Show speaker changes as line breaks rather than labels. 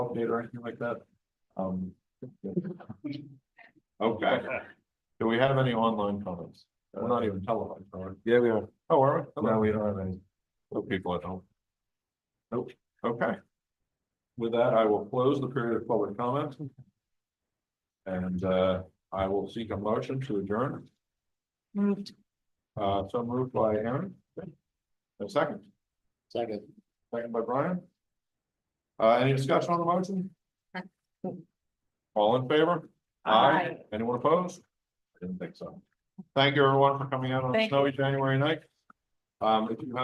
update or anything like that? Um.
Okay,
Do we have any online comments? We're not even televised, are we?
yeah, we are.
Oh, are we?
No,
Hello,
we don't have any.
hello, people at home. Nope, okay. With that, I will close the period of public comment. And uh, I will seek a motion to adjourn.
Moved.
Uh, so moved by Aaron. A second,
Second.
second by Brian. Uh, any discussion on the motion? All in favor?
Aye.
Anyone opposed? I Didn't think so. Thank you, everyone, for coming out on a
Thank you.
snowy January night. Um, if you have